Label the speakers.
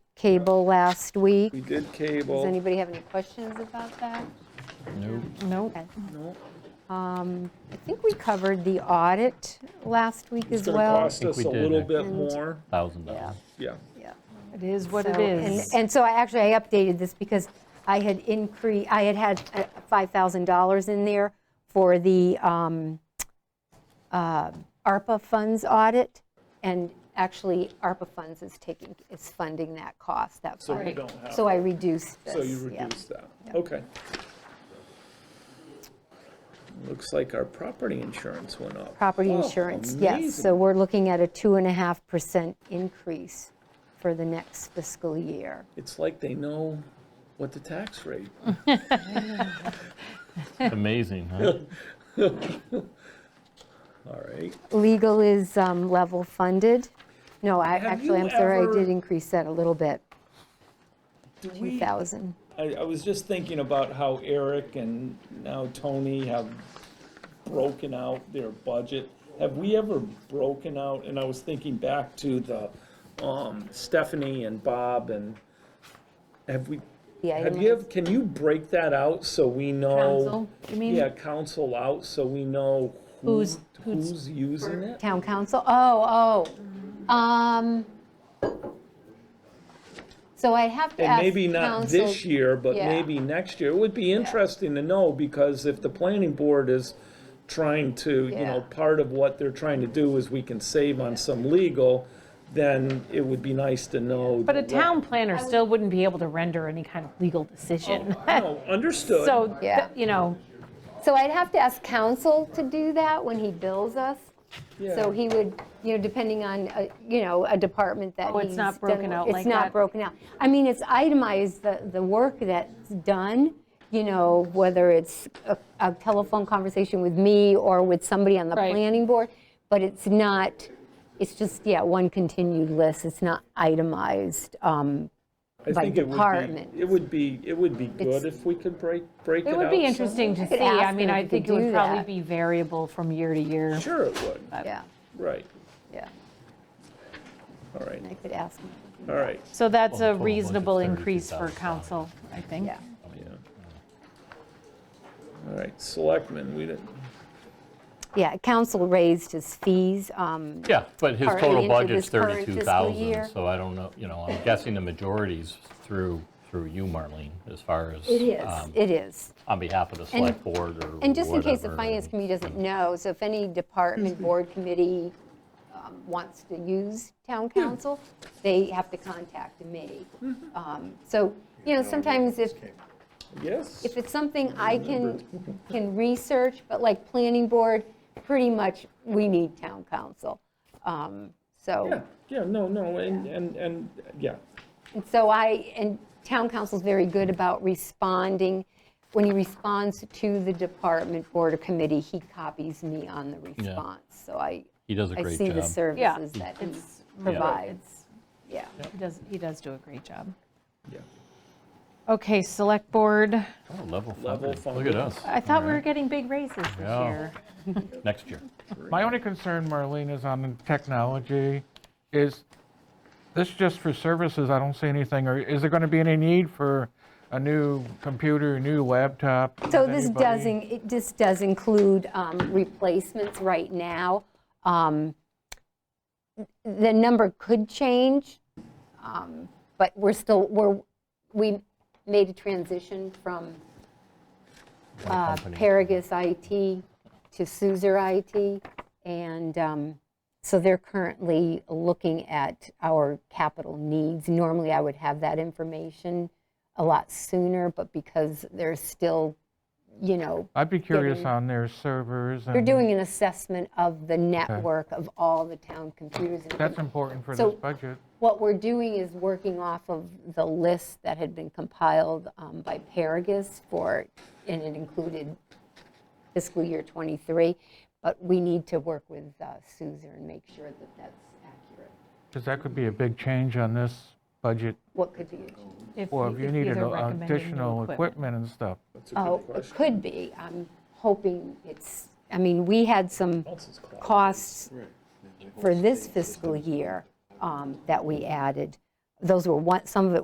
Speaker 1: cable last week.
Speaker 2: We did
Speaker 1: Does
Speaker 2: cable.
Speaker 1: anybody have any questions about that?
Speaker 3: Nope.
Speaker 1: Okay. Um,
Speaker 2: No,
Speaker 1: I think we covered the audit last week as
Speaker 2: It's gonna
Speaker 1: well.
Speaker 2: cost
Speaker 4: think
Speaker 2: us
Speaker 4: we
Speaker 2: a
Speaker 4: did,
Speaker 2: little
Speaker 4: I
Speaker 2: bit more,
Speaker 4: thousand dollars.
Speaker 2: yeah.
Speaker 1: Yeah.
Speaker 3: It is what it
Speaker 1: So- and-
Speaker 3: is.
Speaker 1: And so I actually, I updated this because I had increased, I had had uh, $5,000 in there for the um, uh, ARPA funds audit, and actually ARPA funds is taking, is funding that cost, that
Speaker 2: So we
Speaker 1: part.
Speaker 2: don't have
Speaker 1: So I
Speaker 2: it.
Speaker 1: reduced this.
Speaker 2: So you
Speaker 1: yeah.
Speaker 2: reduce that, okay. Looks like our property insurance went up.
Speaker 1: Property
Speaker 2: Oh,
Speaker 1: insurance, yes.
Speaker 2: amazing.
Speaker 1: So we're looking at a 2.5% increase for the next fiscal year.
Speaker 2: It's like they know what the tax rate.
Speaker 4: It's Amazing, huh?
Speaker 2: All right,
Speaker 1: Legal is um, level funded. No, I,
Speaker 2: Have
Speaker 1: actually,
Speaker 2: you
Speaker 1: I'm sorry, I
Speaker 2: ever-
Speaker 1: did increase that a little bit,
Speaker 2: do we?
Speaker 1: 2,000.
Speaker 2: I, I was just thinking about how Eric and now Tony have broken out their budget. Have we ever broken out, and I was thinking back to the, um, Stephanie and Bob and, have we,
Speaker 1: The
Speaker 2: have
Speaker 1: item
Speaker 2: you,
Speaker 1: is-
Speaker 2: ever- can you break that out so we know?
Speaker 3: Council, you mean?
Speaker 2: Yeah, council out, so we know who,
Speaker 3: Who's- who's-
Speaker 2: who's using it?
Speaker 1: Town council, oh, oh. Um, So I have to
Speaker 2: And
Speaker 1: ask
Speaker 2: maybe not this
Speaker 1: council,
Speaker 2: year, but
Speaker 1: Yeah.
Speaker 2: maybe next year. It would be interesting to know, because if the planning board is trying to, you know,
Speaker 1: Yeah.
Speaker 2: part of what they're trying to do is we can save on some legal, then it would be nice to know.
Speaker 3: But a
Speaker 2: the
Speaker 3: town planner still wouldn't be able to render any kind of legal decision.
Speaker 2: re- No, understood.
Speaker 3: So,
Speaker 1: Yeah.
Speaker 3: you know,
Speaker 1: so I'd have to ask council to do that when he bills us.
Speaker 2: Yeah.
Speaker 1: So he would, you know, depending on, uh, you know, a department that
Speaker 3: Oh,
Speaker 1: he's.
Speaker 3: it's not
Speaker 1: done
Speaker 3: broken
Speaker 1: with-
Speaker 3: out
Speaker 1: It's
Speaker 3: like
Speaker 1: not
Speaker 3: that?
Speaker 1: broken out. I mean, it's itemized, the, the work that's done, you know, whether it's a- a telephone conversation with me or with somebody on the
Speaker 3: Right.
Speaker 1: planning board, but it's not, it's just, yeah, one continued list, it's not itemized. um,
Speaker 2: I
Speaker 1: by
Speaker 2: think it would be-
Speaker 1: department.
Speaker 2: It would be, it would be good
Speaker 1: It's-
Speaker 2: if we could break, break it out.
Speaker 3: it would be
Speaker 2: some-
Speaker 3: interesting to
Speaker 1: could
Speaker 3: see. I
Speaker 1: ask
Speaker 3: mean,
Speaker 1: them if
Speaker 3: I
Speaker 1: you
Speaker 3: think it
Speaker 1: could do
Speaker 3: would probably
Speaker 1: that.
Speaker 3: be variable from year to year.
Speaker 2: Sure it would,
Speaker 1: Yeah,
Speaker 2: right,
Speaker 1: yeah,
Speaker 2: all right,
Speaker 1: I could ask, him,
Speaker 2: all right,
Speaker 3: So that's
Speaker 4: Well, the
Speaker 3: a
Speaker 4: total
Speaker 3: reasonable
Speaker 4: budget's
Speaker 3: increase for
Speaker 4: $32,000.
Speaker 3: council, I think.
Speaker 1: yeah.
Speaker 2: yeah. All right, selectmen, we didn't,
Speaker 1: Yeah, council raised his fees. um,
Speaker 4: Yeah, but his
Speaker 1: Partly
Speaker 4: total
Speaker 1: into
Speaker 4: budget's
Speaker 1: this current fiscal
Speaker 4: 32,000,
Speaker 1: year.
Speaker 4: so I don't know, you know, I'm guessing the majority's through, through you, Marlene, as far as.
Speaker 1: It is,
Speaker 4: um,
Speaker 1: it is.
Speaker 4: On behalf of the select board or whatever.
Speaker 1: And just in case the finance committee doesn't know, so if any department, board, committee um, wants to use town council, they have to contact me. Um, So, you know, sometimes if,
Speaker 2: yes?
Speaker 1: if it's something I can, can research, but like planning board, pretty much, we need town council. Um,
Speaker 2: Yeah,
Speaker 1: So,
Speaker 2: yeah, no, no, and, and, and, yeah,
Speaker 1: and so I, and town council's very good about responding. When he responds to the department, board, or committee, he copies me on the response. So I,
Speaker 4: He does a
Speaker 1: I
Speaker 4: great
Speaker 1: see the
Speaker 4: job.
Speaker 3: Yeah.
Speaker 1: services that he
Speaker 3: It's-
Speaker 1: provides, yeah.
Speaker 3: He does, he does do a great job.
Speaker 2: yeah.
Speaker 3: Okay, select board.
Speaker 4: Oh, Level
Speaker 2: Level
Speaker 4: funded, look at
Speaker 2: funded.
Speaker 4: us,
Speaker 3: I thought we were getting big raises this
Speaker 4: Yeah.
Speaker 3: year.
Speaker 4: next year.
Speaker 5: My only concern, Marlene, is on the technology, is this just for services? I don't see anything, or is there going to be any need for a new computer, a new laptop?
Speaker 1: So
Speaker 5: Does
Speaker 1: this
Speaker 5: anybody-
Speaker 1: does, in- it just does include um, replacements right now. Um, The number could change, um, but we're still, we're, we made a transition from
Speaker 4: One
Speaker 1: uh,
Speaker 4: company.
Speaker 1: Paragus IT to Suzer IT, and um, so they're currently looking at our capital needs. Normally, I would have that information a lot sooner, but because they're still, you know,
Speaker 5: I'd be curious
Speaker 1: getting-
Speaker 5: on their servers
Speaker 1: they're
Speaker 5: and,
Speaker 1: doing an assessment of the network of all the town computers. and
Speaker 5: that's important for
Speaker 1: So-
Speaker 5: this budget.
Speaker 1: what we're doing is working off of the list that had been compiled um, by Paragus for, and it included fiscal year '23, but we need to work with uh, Suzer and make sure that that's accurate.
Speaker 5: Because that could be a big change on this budget,
Speaker 1: What could be,
Speaker 5: or if
Speaker 3: we-
Speaker 5: you
Speaker 3: they're
Speaker 5: needed a-
Speaker 3: recommending new
Speaker 5: additional equipment and stuff.
Speaker 2: That's a good
Speaker 1: oh, it
Speaker 2: question.
Speaker 1: could be, I'm hoping it's, I mean, we had some
Speaker 2: Elsa's cloud.
Speaker 1: costs for this fiscal year um, that we added those were one, some of it